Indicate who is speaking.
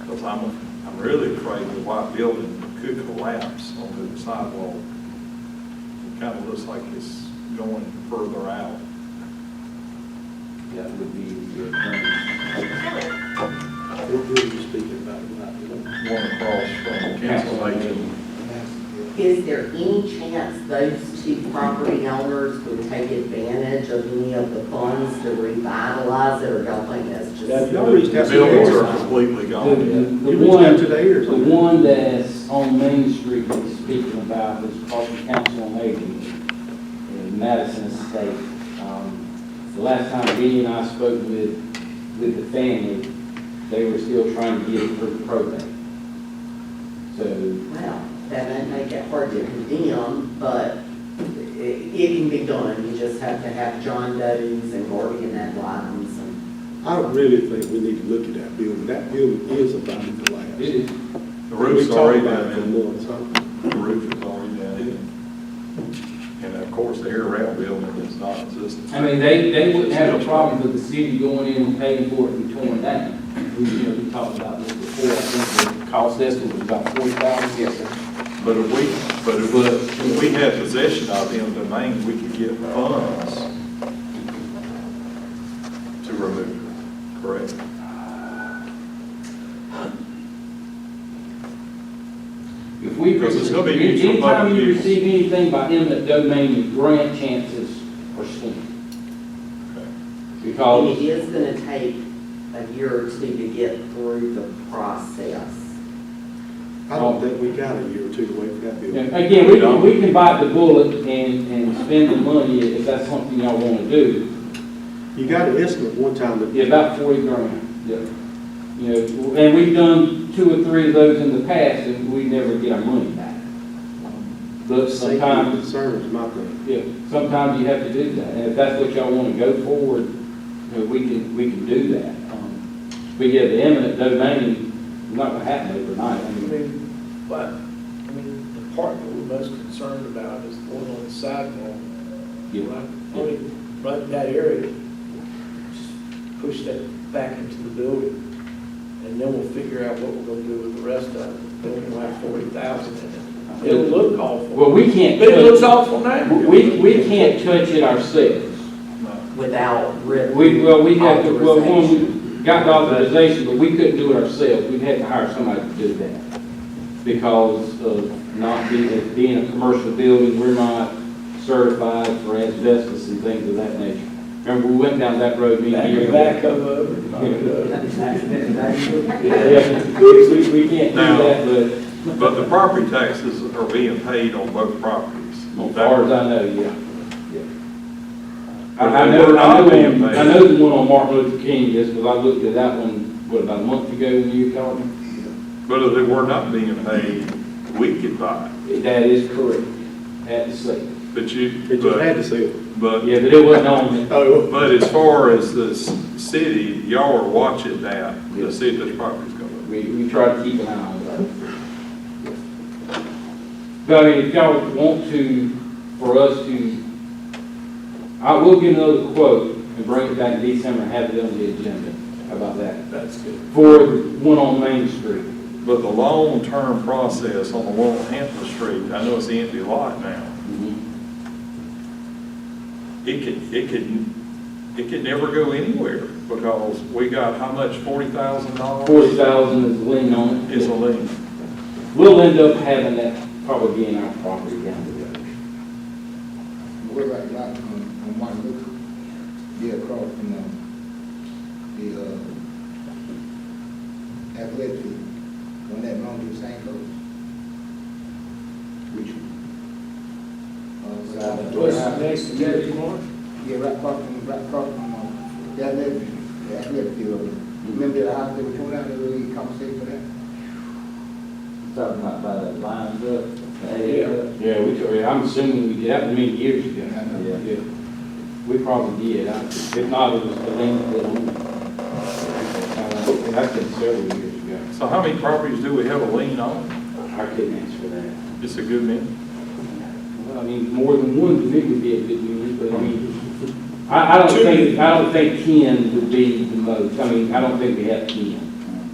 Speaker 1: Because I'm, I'm really afraid the white building could collapse onto the sidewalk. It kind of looks like it's going further out.
Speaker 2: That would be the attorney.
Speaker 3: Who who are you speaking about? Not, you know,
Speaker 1: One across from Council Agent.
Speaker 4: Is there any chance those two property owners would take advantage of any of the funds to revitalize it, or y'all think that's just?
Speaker 3: Y'all reached out
Speaker 1: The
Speaker 3: to
Speaker 1: buildings
Speaker 3: the
Speaker 1: are
Speaker 3: neighbors.
Speaker 1: completely
Speaker 2: The-
Speaker 1: gone.
Speaker 2: the-
Speaker 3: You
Speaker 2: the
Speaker 3: reached out
Speaker 2: one-
Speaker 3: to the ears on
Speaker 2: The
Speaker 3: that.
Speaker 2: one that's on Main Street that he's speaking about is Carson Council on Aging in Madison State. Um, The last time Dee and I spoke with, with the family, they were still trying to get through probate. So
Speaker 4: Well, that may make it hard to condemn, but it, it can be done. You just have to have John Doe's and Morgan and Lyons and.
Speaker 5: I really think we need to look at that building. That building is about to collapse.
Speaker 2: it is
Speaker 1: The roof's
Speaker 5: We talked
Speaker 1: already
Speaker 5: about
Speaker 1: down
Speaker 5: it for
Speaker 1: in.
Speaker 5: months, huh?
Speaker 1: The roof is already down in. And of course, the air rail building is not existent.
Speaker 2: I mean, they, they wouldn't have a problem with the city going in and paying for it and torn down. You know, we talked about this before, I think the cost estimate was about forty thousand. Yes, sir.
Speaker 1: But if we, but if, if we had possession of the domain, we could get funds to remove it, correct?
Speaker 2: If we,
Speaker 1: Because it's gonna be used for
Speaker 2: anytime
Speaker 1: public
Speaker 2: you
Speaker 1: use.
Speaker 2: receive anything by eminent domain, your grant chances are slim.
Speaker 4: And it
Speaker 2: Because,
Speaker 4: is gonna take a year or two to get through the process.
Speaker 5: I don't think we got a year or two to wait for that
Speaker 2: you
Speaker 5: building.
Speaker 2: know, again, we can, we can bite the bullet and, and spend the money if that's something y'all wanna do.
Speaker 5: You got an estimate one time that
Speaker 2: Yeah, about forty grand, yeah. You know, and we've done two or three of those in the past, and we never get our money back. But
Speaker 5: safety
Speaker 2: sometimes,
Speaker 5: concerns, my thing.
Speaker 2: yeah, sometimes you have to do that, and if that's what y'all wanna go forward, you know, we can, we can do that. Um, But yeah, the eminent domain, is not gonna happen overnight, I
Speaker 6: I
Speaker 2: mean,
Speaker 6: mean, but, I mean, the part that we're most concerned about is the one on the sidewalk.
Speaker 2: Yeah.
Speaker 6: Right, I mean, right in that area, just push that back into the building, and then we'll figure out what we're gonna do with the rest of it. Then we'll have forty thousand in it. It'll look awful,
Speaker 2: well, we can't.
Speaker 6: but it looks
Speaker 2: touch-
Speaker 6: awful now.
Speaker 2: We, we can't touch it ourselves.
Speaker 4: without written.
Speaker 2: We, well, we had to, well,
Speaker 4: authorization.
Speaker 2: when we got the authorization, but we couldn't do it ourselves, we had to hire somebody to do that. Because of not being, being a commercial building, we're not certified for asbestos and things of that nature. Remember, we went down that road, me and you.
Speaker 6: Back up over, knock it over.
Speaker 2: Yeah, we, we- we can't do that,
Speaker 1: But the property taxes are being paid on both properties.
Speaker 2: but as far as I know, yeah. yeah. I, I
Speaker 1: They
Speaker 2: know,
Speaker 1: were
Speaker 2: I
Speaker 1: not being
Speaker 2: know,
Speaker 1: paid.
Speaker 2: I know the one on Martin Luther King, is because I looked at that one, what, about a month ago when you called me?
Speaker 1: But if they were not being paid, we could buy it.
Speaker 2: That is correct, at the state.
Speaker 1: But
Speaker 5: They
Speaker 1: you,
Speaker 5: just
Speaker 1: but,
Speaker 5: had to say it.
Speaker 1: but,
Speaker 2: Yeah, but it wasn't on there.
Speaker 5: Oh,
Speaker 1: but as far as the s- city, y'all are watching that to see if this property's going
Speaker 2: We, we try to keep an eye on that. But I mean, if y'all want to, for us to, I will get another quote and bring it back in December and have it on the agenda. How about that?
Speaker 1: to. That's good.
Speaker 2: For one on Main Street.
Speaker 1: But the long-term process on the one on Hampton Street, I know it's an empty lot now. It could, it could, it could never go anywhere because we got how much, forty thousand dollars?
Speaker 2: Forty thousand is lean on
Speaker 1: Is a
Speaker 2: it.
Speaker 1: lien.
Speaker 2: We'll end up having that probably being our property down the road.
Speaker 7: What about like on, on Martin Luther? Yeah, across from, um, the, uh, athletic, field, when that long distance ain't goes. Which one? Uh, so-
Speaker 6: What's next, to that, you want?
Speaker 7: yeah, right across from, right across from, um, the athletic, the athletic field. Remember the house that we tore down, that we conversation for that?
Speaker 2: Talking about by the lines up,
Speaker 6: eight up.
Speaker 2: Yeah, we, took- I'm assuming we did, that was many years ago.
Speaker 7: I know.
Speaker 2: Yeah. We probably did, I- if not, it was the length of the. That's been several years ago.
Speaker 1: So how many properties do we have a lien on?
Speaker 2: I couldn't answer that.
Speaker 1: It's a good many.
Speaker 2: Well, I mean, more than one to me would be a good unit, but I mean, I, I don't think, I don't think ten would be the most, I mean, I don't think we have ten.